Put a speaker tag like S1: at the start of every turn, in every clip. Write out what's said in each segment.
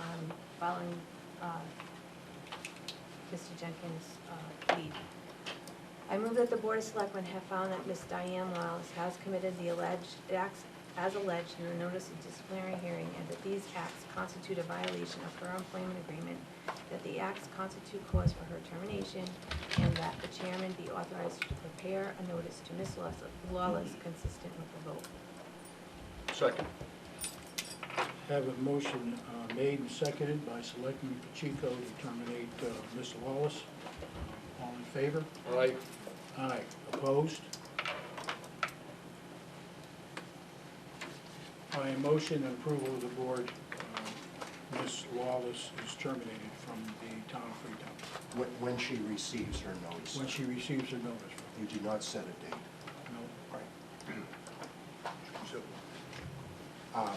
S1: um, following uh, Mr. Jenkins' uh, lead. I move that the Board of Selectmen have found that Ms. Diane Wallace has committed the alleged acts as alleged in the notice of disciplinary hearing and that these acts constitute a violation of her employment agreement, that the acts constitute cause for her termination, and that the chairman be authorized to prepare a notice to Ms. Lawless- Lawless consistent with the vote.
S2: Second.
S3: Have a motion uh, made and seconded by Selectman Pacheco to terminate uh, Ms. Wallace. All in favor?
S2: All right.
S3: Aye. Opposed? By a motion and approval of the board, uh, Ms. Wallace is terminated from the town of Freetown
S4: When, when she receives her notice.
S3: when she receives her notice.
S4: You do not set a date.
S3: No.
S4: Right. Uh,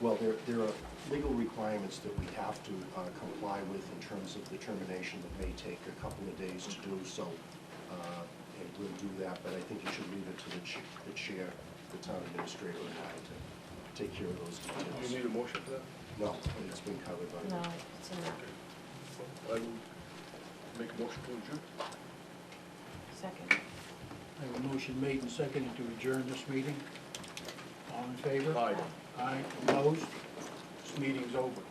S4: Well, there, there are legal requirements that we have to uh, comply with in terms of the termination that may take a couple of days to do, so, uh, and we'll do that, but I think you should leave it to the chi- the chair, the town administrator, and I to take care of those
S2: Do you need
S4: details.
S2: a motion for that?
S4: No, it's been covered by.
S1: No, it's in that
S2: I will make a motion to adjourn.
S1: second.
S3: I have a motion made and seconded to adjourn this meeting. All in favor?
S2: Aye.
S3: Aye. Opposed? This meeting's over.